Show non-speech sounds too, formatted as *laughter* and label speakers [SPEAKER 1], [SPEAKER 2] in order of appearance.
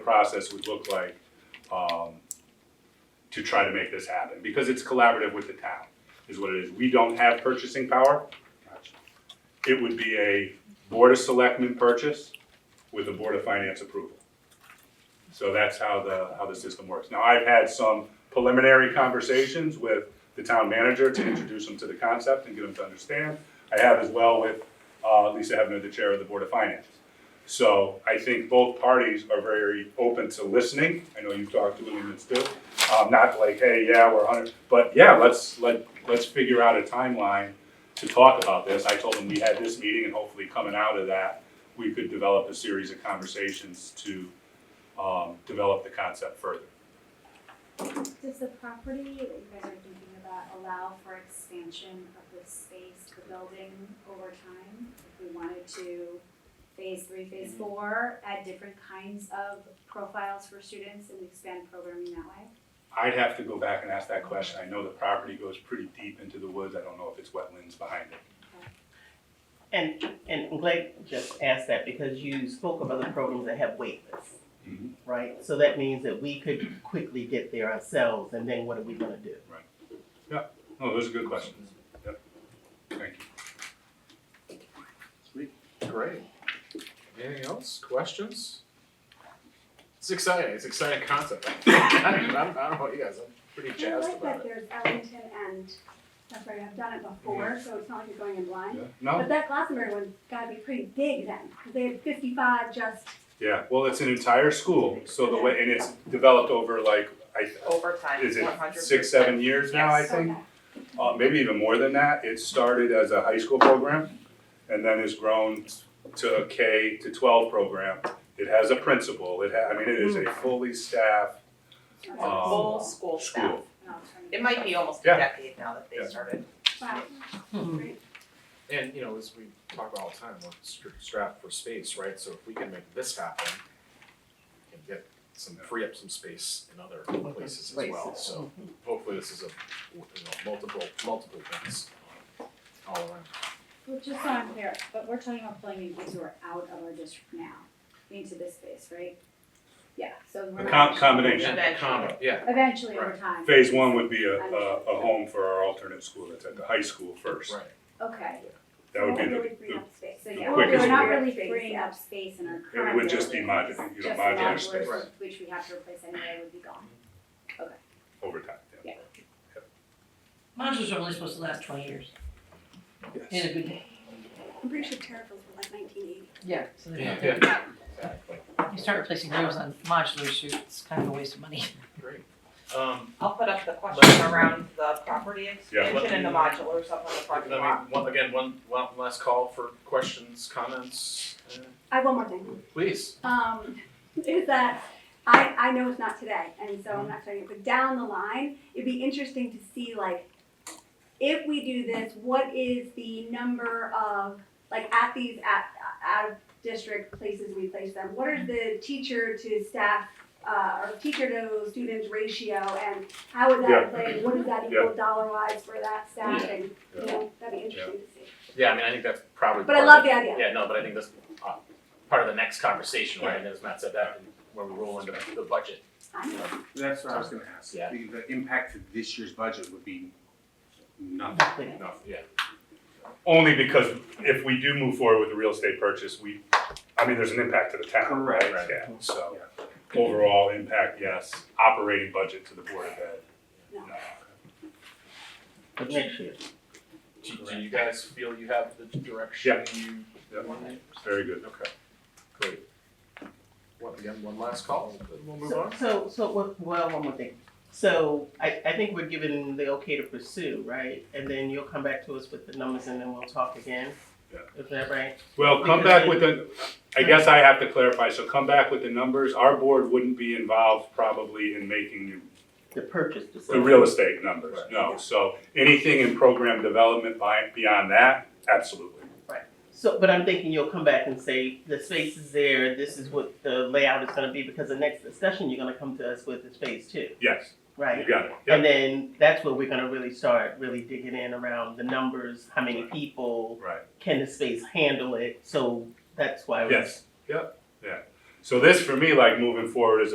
[SPEAKER 1] process would look like um, to try to make this happen, because it's collaborative with the town, is what it is. We don't have purchasing power. It would be a Board of Selectmen purchase with a Board of Finance approval. So that's how the, how the system works. Now, I've had some preliminary conversations with the town manager to introduce him to the concept and get him to understand. I have as well with uh, Lisa Hebner, the Chair of the Board of Finance. So I think both parties are very open to listening. I know you've talked to Williams too. Um, not like, hey, yeah, we're hundred, but yeah, let's, let, let's figure out a timeline to talk about this. I told them we had this meeting and hopefully coming out of that, we could develop a series of conversations to, um, develop the concept further.
[SPEAKER 2] Does the property that you guys are thinking about allow for expansion of the space, the building over time? If we wanted to phase three, phase four, add different kinds of profiles for students and expand programming that way?
[SPEAKER 1] I'd have to go back and ask that question. I know the property goes pretty deep into the woods. I don't know if it's wetlands behind it.
[SPEAKER 3] And, and I'm glad you just asked that because you spoke of other programs that have wait lists,
[SPEAKER 4] Mm-hmm.
[SPEAKER 1] Mhm.
[SPEAKER 3] right? So that means that we could quickly get there ourselves and then what are we gonna do?
[SPEAKER 1] No, those are good questions. Yep. Thank you.
[SPEAKER 4] Great. Anything else? Questions? It's exciting. It's an exciting concept. *laughs* I don't, I don't know about you guys. I'm pretty
[SPEAKER 2] I
[SPEAKER 4] jazzed
[SPEAKER 2] like that
[SPEAKER 4] about it.
[SPEAKER 2] there's Ellington and, that's right, I've done it before, so it's not like you're going in blind.
[SPEAKER 1] No,
[SPEAKER 4] Oh.
[SPEAKER 2] But that Glastonbury one's gotta be pretty big then, because they had fifty-five just,
[SPEAKER 1] yeah, well, it's an entire school, so the way, and it's developed over like, I,
[SPEAKER 5] overtime,
[SPEAKER 1] is it
[SPEAKER 5] one hundred percent.
[SPEAKER 1] six, seven years now, I
[SPEAKER 5] Yes.
[SPEAKER 1] think?
[SPEAKER 2] okay.
[SPEAKER 1] Uh, maybe even more than that, it started as a high school program and then has grown to a K to twelve program. It has a principal, it ha, I mean, it is a fully staffed,
[SPEAKER 2] Okay.
[SPEAKER 1] Um,
[SPEAKER 5] Full school staff.
[SPEAKER 1] school.
[SPEAKER 2] An alternative.
[SPEAKER 5] It might be almost a
[SPEAKER 1] Yeah.
[SPEAKER 5] decade now that they
[SPEAKER 1] Yeah.
[SPEAKER 5] started.
[SPEAKER 2] Wow,
[SPEAKER 4] Hmm.
[SPEAKER 3] Mhm.
[SPEAKER 2] great.
[SPEAKER 4] And you know, as we talk about all the time, we're stra- strapped for space, right? So if we can make this happen, we can get some free up some space in other places as well.
[SPEAKER 3] Places. Mm-hmm.
[SPEAKER 4] So hopefully, this is a you know multiple multiple things all around.
[SPEAKER 2] Well, just so I'm clear, but we're talking about pulling in kids who are out of our district now into this space, right? Yeah, so we're
[SPEAKER 1] a
[SPEAKER 2] not.
[SPEAKER 1] com- combination.
[SPEAKER 5] Eventually.
[SPEAKER 4] Combo, yeah.
[SPEAKER 2] Eventually over time.
[SPEAKER 1] Phase one would be a, a, a home for our alternate school that's at the high school first.
[SPEAKER 4] Right.
[SPEAKER 2] Okay.
[SPEAKER 1] That would be
[SPEAKER 2] Won't
[SPEAKER 1] the,
[SPEAKER 2] really free
[SPEAKER 1] the-
[SPEAKER 2] up space, so
[SPEAKER 1] the
[SPEAKER 2] yeah, we're
[SPEAKER 1] quickest
[SPEAKER 2] not
[SPEAKER 1] way.
[SPEAKER 2] really freeing up space in our current.
[SPEAKER 1] it would just be
[SPEAKER 2] building.
[SPEAKER 1] modular, you know,
[SPEAKER 2] Just
[SPEAKER 1] modular
[SPEAKER 2] modular,
[SPEAKER 1] space
[SPEAKER 4] Right.
[SPEAKER 2] Which we have to replace anyway, would be gone.
[SPEAKER 1] over time, yeah.
[SPEAKER 6] Monsters are only supposed to last twenty years, in a good day.
[SPEAKER 2] I'm pretty sure terrafills were like nineteen eighty.
[SPEAKER 6] Yeah. So they're not
[SPEAKER 4] Yeah,
[SPEAKER 6] good.
[SPEAKER 4] yeah. Exactly.
[SPEAKER 6] You start replacing rooms on modular shoots, it's kind of a waste of money.
[SPEAKER 4] Great. Um,
[SPEAKER 5] I'll put up the question around the property
[SPEAKER 1] Yeah,
[SPEAKER 4] let
[SPEAKER 5] expansion and the
[SPEAKER 4] me-
[SPEAKER 5] modulars up on the
[SPEAKER 4] Let
[SPEAKER 5] parking
[SPEAKER 4] me,
[SPEAKER 5] lot.
[SPEAKER 4] one, again, one, one last call for questions, comments, uh,
[SPEAKER 7] I have one more thing.
[SPEAKER 4] please.
[SPEAKER 7] Um, *laughs* is that I, I know it's not today, and so I'm not saying it, but down the line, it'd be interesting to see like if we do this, what is the number of like at these at out of district places we place them? What is the teacher to staff uh, or teacher to students ratio, and how would
[SPEAKER 1] Yeah.
[SPEAKER 7] that play? What does that equal dollar wise for that staff? And you know, that'd be interesting to see.
[SPEAKER 4] Yeah, I mean, I think that's probably.
[SPEAKER 7] But I
[SPEAKER 4] part
[SPEAKER 7] love
[SPEAKER 4] of
[SPEAKER 7] the idea.
[SPEAKER 4] Yeah, no, but I think that's, uh, part of the next conversation, right, and as Matt said, that, when we roll into the budget.
[SPEAKER 7] I'm-
[SPEAKER 8] That's what I was gonna ask.
[SPEAKER 4] Yeah.
[SPEAKER 8] The, the impact to this year's budget would be nothing.
[SPEAKER 3] Nothing.
[SPEAKER 4] No, yeah.
[SPEAKER 1] Only because if we do move forward with the real estate purchase, we, I mean, there's an impact to the town, right?
[SPEAKER 8] Correct.
[SPEAKER 1] Yeah, so, overall impact, yes, operating budget to the Board of Ed. Uh,
[SPEAKER 7] No.
[SPEAKER 3] But next year.
[SPEAKER 4] Do, do you guys feel you have the direction you?
[SPEAKER 1] Yeah.
[SPEAKER 4] want?
[SPEAKER 1] Very good.
[SPEAKER 4] Okay, great. What, again, one last call, then we'll move
[SPEAKER 3] So,
[SPEAKER 4] on?
[SPEAKER 3] so, so, what- well, one more thing. So I, I think we're given the okay to pursue, right? And then you'll come back to us with the numbers and then we'll talk again.
[SPEAKER 1] Yeah.
[SPEAKER 3] Is that right?
[SPEAKER 1] Well, come back with the, I guess I have to clarify, so come back with the numbers. Our board wouldn't be involved probably in making
[SPEAKER 3] The purchase
[SPEAKER 1] the
[SPEAKER 3] decision.
[SPEAKER 1] real estate numbers, no. So anything in program development by, beyond that, absolutely.
[SPEAKER 3] So, but I'm thinking you'll come back and say, the space is there, this is what the layout is gonna be, because the next discussion you're gonna come to us with is phase two,
[SPEAKER 1] Yes,
[SPEAKER 3] right?
[SPEAKER 1] you got it. Yep.
[SPEAKER 3] And then that's where we're gonna really start really digging in around the numbers, how many people,
[SPEAKER 1] Right.
[SPEAKER 3] can the space handle it? So that's why we're
[SPEAKER 1] Yes, yep, yeah. So this for me, like moving forward, is